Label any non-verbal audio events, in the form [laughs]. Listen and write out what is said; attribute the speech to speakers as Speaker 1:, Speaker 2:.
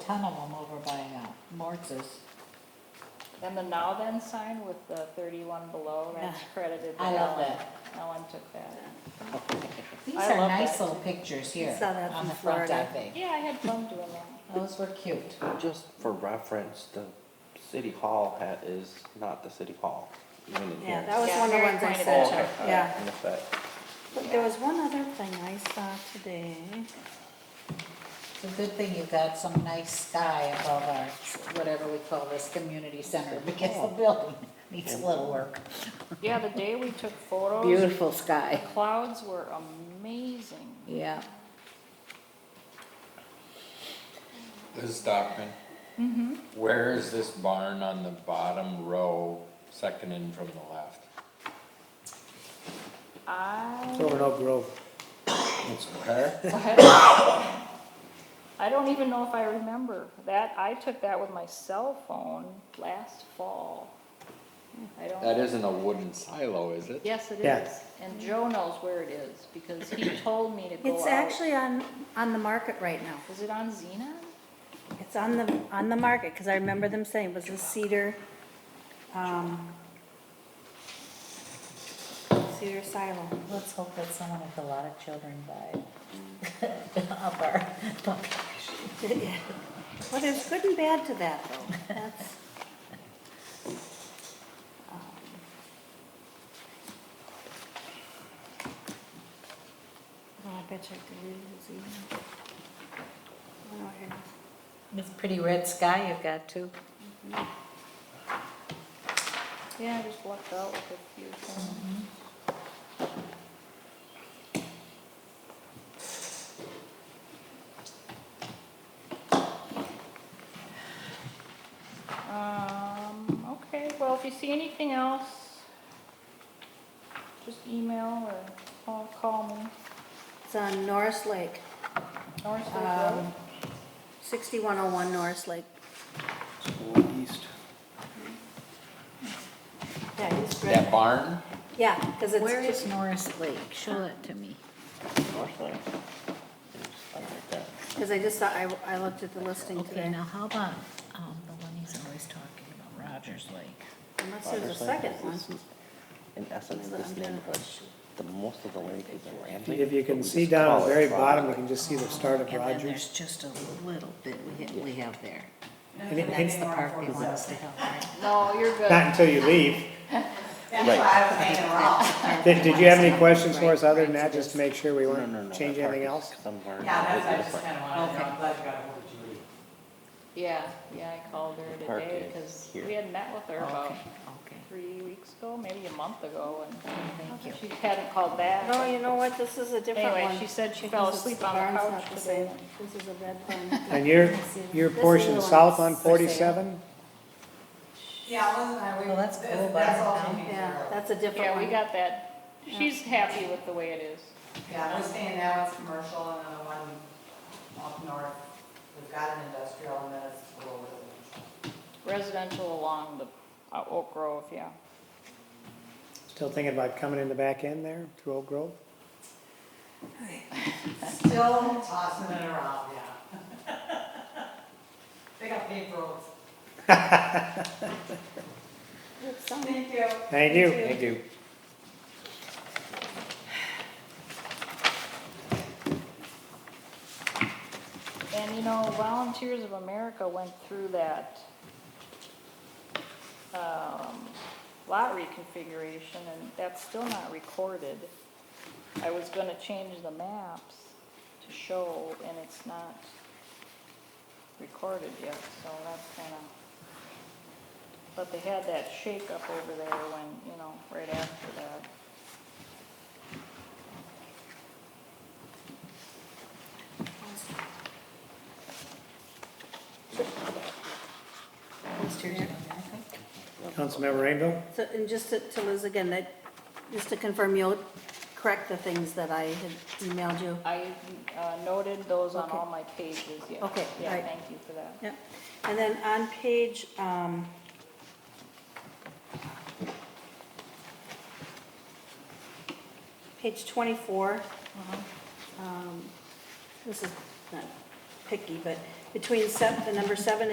Speaker 1: ton of them over by uh, Martz's.
Speaker 2: And the now then sign with the thirty-one below, that's
Speaker 1: Yeah.
Speaker 2: credited to
Speaker 1: I
Speaker 2: Ellen.
Speaker 1: love that.
Speaker 2: Ellen took that.
Speaker 1: These
Speaker 2: I
Speaker 1: are
Speaker 2: love
Speaker 1: nice
Speaker 2: that.
Speaker 1: little pictures here
Speaker 3: Saw that
Speaker 1: on the
Speaker 3: from
Speaker 1: front, I
Speaker 3: Florida.
Speaker 1: think.
Speaker 2: Yeah, I had fun doing that.
Speaker 1: Those were cute.
Speaker 4: Just for reference, the city hall hat is not the city hall. even in
Speaker 3: Yeah,
Speaker 4: here.
Speaker 3: that was
Speaker 2: Yeah,
Speaker 3: one of the
Speaker 2: very
Speaker 3: ones I
Speaker 2: pointed
Speaker 4: Oh,
Speaker 3: sent
Speaker 4: okay,
Speaker 3: you,
Speaker 4: all right,
Speaker 3: yeah.
Speaker 4: I missed that.
Speaker 3: But There was one other thing I saw today.
Speaker 2: Oh,
Speaker 1: It's a good thing you've got some nice sky above our, whatever we call this, community center, [laughs] because the building needs a little work.
Speaker 2: Yeah, the day we took photos,
Speaker 1: Beautiful sky,
Speaker 2: clouds were amazing.
Speaker 1: yeah.
Speaker 5: Liz Stockman? Where is this barn on the bottom row, second in from the left?
Speaker 2: I,
Speaker 6: Over Oak Grove.
Speaker 5: It's where?
Speaker 2: I don't even know if I remember. That, I took that with my cell phone last fall. I don't.
Speaker 5: That isn't a wooden silo, is it?
Speaker 2: Yes, it
Speaker 6: Yeah.
Speaker 2: is. And Joe knows where it is because he told me to go out.
Speaker 3: It's actually on, on the market right now.
Speaker 2: Is it on Xena?
Speaker 3: It's on the, on the market, because I remember them saying it was a cedar, um, cedar silo.
Speaker 1: Let's hope that someone with a lot of children died [laughs] up our [laughs] population.
Speaker 3: [laughs] Well, there's good and bad to that, though. That's- um, Oh, I bet you I could read his email. Oh, here.
Speaker 1: It's pretty red sky you've got too.
Speaker 2: Yeah, I just lucked out with a few things. Um, okay, well, if you see anything else, just email or call, call me.
Speaker 3: It's on Norris Lake,
Speaker 2: Norris Lake Road.
Speaker 3: um, 6101 Norris Lake.
Speaker 6: East.
Speaker 3: Yeah, it's
Speaker 5: That
Speaker 3: red.
Speaker 5: barn?
Speaker 3: Yeah, because it's.
Speaker 1: Where
Speaker 3: just-
Speaker 1: is Norris Lake? Show it to me.
Speaker 4: North Lake. It's something like that.
Speaker 3: Because I just saw, I, I looked at the listing
Speaker 1: Okay,
Speaker 3: today.
Speaker 1: now how about, um, the one he's always talking about, Rogers Lake?
Speaker 3: Unless there's a
Speaker 4: Others like
Speaker 3: second
Speaker 4: this
Speaker 3: one.
Speaker 4: is- In essence,
Speaker 3: Let me look,
Speaker 4: this
Speaker 3: I'm gonna-
Speaker 4: neighborhood, the most of the lake is rambling.
Speaker 6: If you
Speaker 4: but
Speaker 6: can
Speaker 4: we
Speaker 6: see
Speaker 4: just
Speaker 6: down at
Speaker 4: call
Speaker 6: the
Speaker 4: it
Speaker 6: very
Speaker 4: Rogers
Speaker 6: bottom, you
Speaker 4: Lake.
Speaker 6: can just see the start of
Speaker 1: And then
Speaker 6: Rogers.
Speaker 1: there's just a little bit we ha- we have there.
Speaker 6: Any- any-
Speaker 1: That's the part we want us to help, right?
Speaker 2: [laughs] No, you're good.
Speaker 6: Not until you leave.
Speaker 4: Right.
Speaker 6: Did, did you have any questions for us other than that, just to make sure we
Speaker 4: No, no, no,
Speaker 6: weren't
Speaker 4: that
Speaker 6: changing
Speaker 4: part
Speaker 6: anything
Speaker 4: is
Speaker 6: else?
Speaker 4: Somewhere.
Speaker 7: Yeah, that's, I
Speaker 4: completely
Speaker 7: just
Speaker 4: different.
Speaker 7: kinda wanted to know, I'm glad you got ahold of Julie.
Speaker 2: Yeah, yeah, I called her
Speaker 4: The park
Speaker 2: today
Speaker 4: is
Speaker 2: because
Speaker 4: here. Oh,
Speaker 2: we had met with her about
Speaker 1: Okay, okay.
Speaker 2: three weeks ago, maybe a month ago,
Speaker 1: Thank you.
Speaker 2: and she hadn't called back.
Speaker 3: No, you know what, this is a different one.
Speaker 2: Anyway, she said she fell
Speaker 3: Because
Speaker 2: asleep
Speaker 3: it's- the
Speaker 2: on the
Speaker 3: barn's
Speaker 2: couch
Speaker 3: not the
Speaker 2: today.
Speaker 3: same. This is a red one.
Speaker 6: And your, your portion south on forty-seven?
Speaker 7: Yeah, I wasn't, I, we,
Speaker 1: Well, that's
Speaker 7: that's,
Speaker 1: cool,
Speaker 7: that's
Speaker 1: but-
Speaker 7: all she needs to
Speaker 3: [laughs] Yeah,
Speaker 7: know.
Speaker 3: that's a different
Speaker 2: Yeah,
Speaker 3: one.
Speaker 2: we got that. She's happy with the way it is.
Speaker 7: Yeah, I'm just saying now it's commercial and then the one up north, we've got an industrial and then it's a little residential.
Speaker 2: Residential along the uh, Oak Grove, yeah.
Speaker 6: Still thinking about coming in the back end there, through Oak Grove?
Speaker 7: Still tossing it around, yeah. [laughs] They got paper roads.
Speaker 3: It's on.
Speaker 7: Thank you.
Speaker 6: Thank you. Thank
Speaker 4: you.
Speaker 2: And you know, Volunteers of America went through that um, lot reconfiguration, and that's still not recorded. I was gonna change the maps to show, and it's not recorded yet, so that's kinda... But they had that shakeup over there when, you know, right after that.
Speaker 6: Councilmember Rainville?
Speaker 3: So, and just to, to Liz again, that, just to confirm, you'll correct the things that I had emailed you?
Speaker 2: I uh, noted those on
Speaker 3: Okay.
Speaker 2: all my pages, yeah.
Speaker 3: Okay,
Speaker 2: Yeah,
Speaker 3: alright.
Speaker 2: thank you for that.
Speaker 3: Yep, and then on page, um, page twenty-four, um, this is not picky, but between seven, the number seven and